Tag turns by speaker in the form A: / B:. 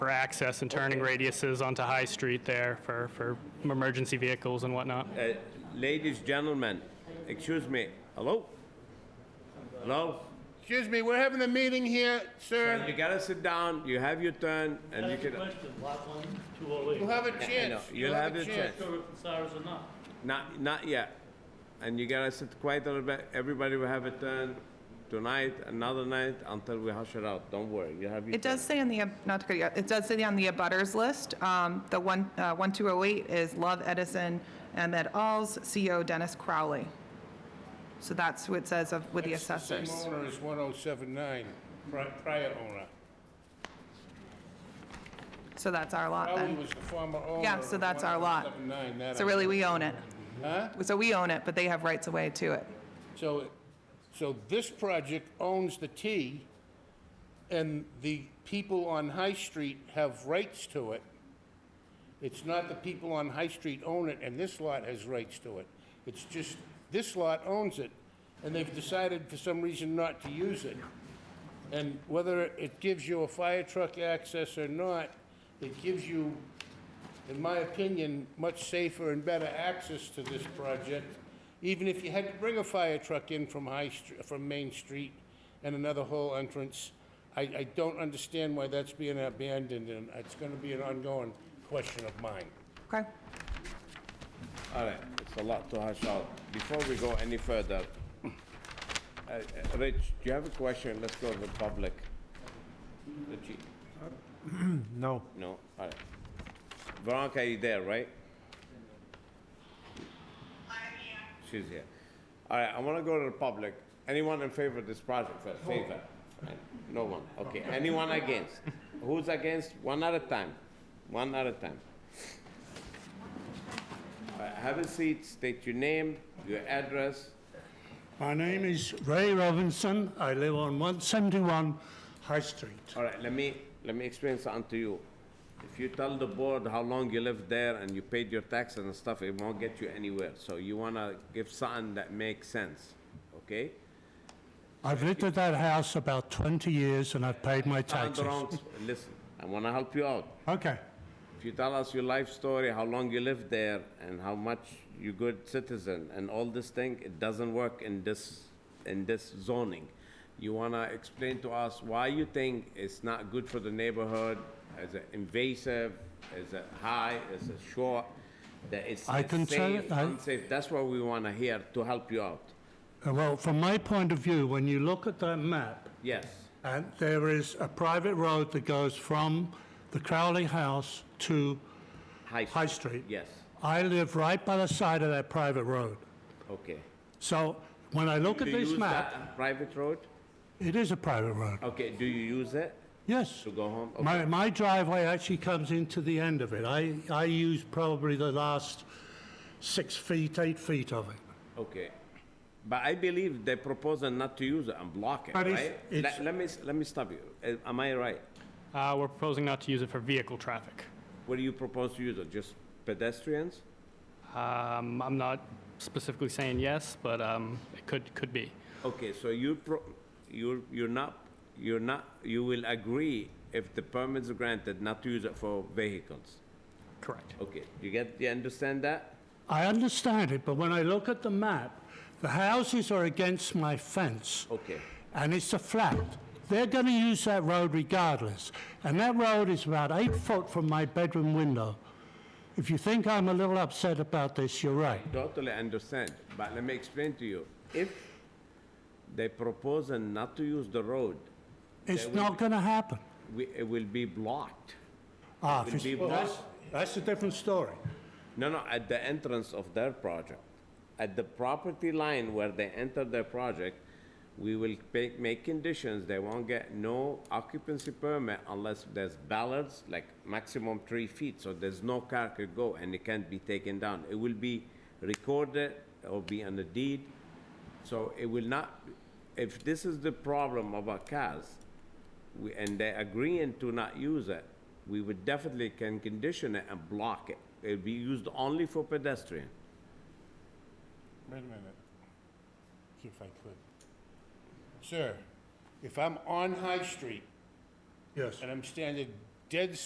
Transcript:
A: for access and turning radiuses onto High Street there for, for emergency vehicles and whatnot.
B: Uh, ladies, gentlemen, excuse me. Hello? Hello?
C: Excuse me, we're having a meeting here, sir.
B: You gotta sit down, you have your turn, and you can.
D: Question, lot one, two oh eight.
C: You'll have a
B: I know,
C: chance.
B: You'll have your chance.
D: Sure if it's ours or not.
B: Not, not yet. And you gotta sit quiet a little bit. Everybody will have a turn tonight, another night, until we hush it out. Don't worry, you have your.
E: It does say on the, ab- not to cut you, off, it does say on the abutters list, um, the one, uh, 1208 is Love Edison and et al.'s CO E Dennis Crowley. So that's what it says of, with the assessors.
C: Same owner is 1079, pri- prior owner.
E: So that's our lot
C: Crowley
E: then.
C: was the former owner.
E: Yeah, so that's our lot.
C: 1079, that
E: So
C: I-
E: really, we own it.
C: Huh?
E: So we own it, but they have rights of way to it.
C: So, so this project owns the T, and the people on High Street have rights to it. It's not the people on High Street own it, and this lot has rights to it. It's just, this lot owns it, and they've decided for some reason not to use it. And whether it gives you a fire truck access or not, it gives you, in my opinion, much safer and better access to this project, even if you had to bring a fire truck in from High Street, from Main Street and another whole entrance. I, I don't understand why that's being abandoned, and it's gonna be an ongoing question of mine.
E: Okay?
B: All right, it's a lot to hash out. Before we go any further, uh, uh, Rich, do you have a question? Let's go to the public. The chief.
F: No.
B: No, all right. Veronica, you there, right? I'm here. She's here. All right, I want to go to the public. Anyone in favor of this project first? Favor? No one, okay. Anyone against? Who's against? One at a time. One at a time. All right, Have a seat, state your name, your address.
F: My name is Ray Robinson. I live on 171 High Street.
B: All right, let me, let me explain something to you. If you tell the board how long you lived there and you paid your taxes and stuff, it won't get you anywhere. So you wanna give something that makes sense, okay?
F: I've lived at that house about 20 years and I've paid my
B: Tell the
F: taxes.
B: wrong s- Listen, I wanna help you out.
F: Okay.
B: If you tell us your life story, how long you lived there, and how much you good citizen, and all this thing, it doesn't work in this, in this zoning. You wanna explain to us why you think it's not good for the neighborhood, is it invasive, is it high, is it short, that it's
F: I can tell-
B: safe,
F: I-
B: unsafe, that's what we wanna hear to help you out.
F: Uh, Well, from my point of view, when you look at that map,
B: Yes,
F: and there is a private road that goes from the Crowley house to,
B: high.
F: High Street.
B: Yes,
F: I live right by the side of that private road.
B: okay.
F: So when I look at
B: Do you
F: this
B: use
F: map,
B: that Private road?
F: it is a private road.
B: Okay, do you use it
F: Yes.
B: to go home? Okay.
F: My, my driveway actually comes into the end of it. I, I use probably the last six feet, eight feet of it.
B: Okay. But I believe they proposal not to use it and block it,
F: But it's-
B: right?
F: it's-
B: Let, let me, let me stop you. Uh, Am I right?
A: Uh, we're proposing not to use it for vehicle traffic.
B: What do you propose to use it? Just pedestrians?
A: Um, I'm not specifically saying yes, but um, it could, could be.
B: Okay, so you pro, you're, you're not, you're not, you will agree if the permits are granted not to use it for vehicles.
A: Correct.
B: Okay, you get, you understand that?
F: I understand it, but when I look at the map, the houses are against my fence.
B: Okay.
F: And it's a flat. They're going to use that road regardless. And that road is about eight foot from my bedroom window. If you think I'm a little upset about this, you're right.
B: Totally understand, but let me explain to you. If they propose not to use the road,
F: It's not going to happen.
B: we, it will be blocked.
F: Ah,
B: Would
F: if
B: be
F: it's- well, that's, that's a different story.
B: No, no, at the entrance of their project. At the property line where they enter their project, we will make, make conditions, they won't get no occupancy permit unless there's ballards, like maximum three feet, so there's no car could go and it can't be taken down. It will be recorded, or be on the deed, so it will not, if this is the problem about cars, we- and they agreeing to not use it, we would definitely can condition it and block it. It'll be used only for pedestrian.
C: Wait a minute. See if I could. Sir, if I'm on High Street
F: Yes.
C: and I'm standing dead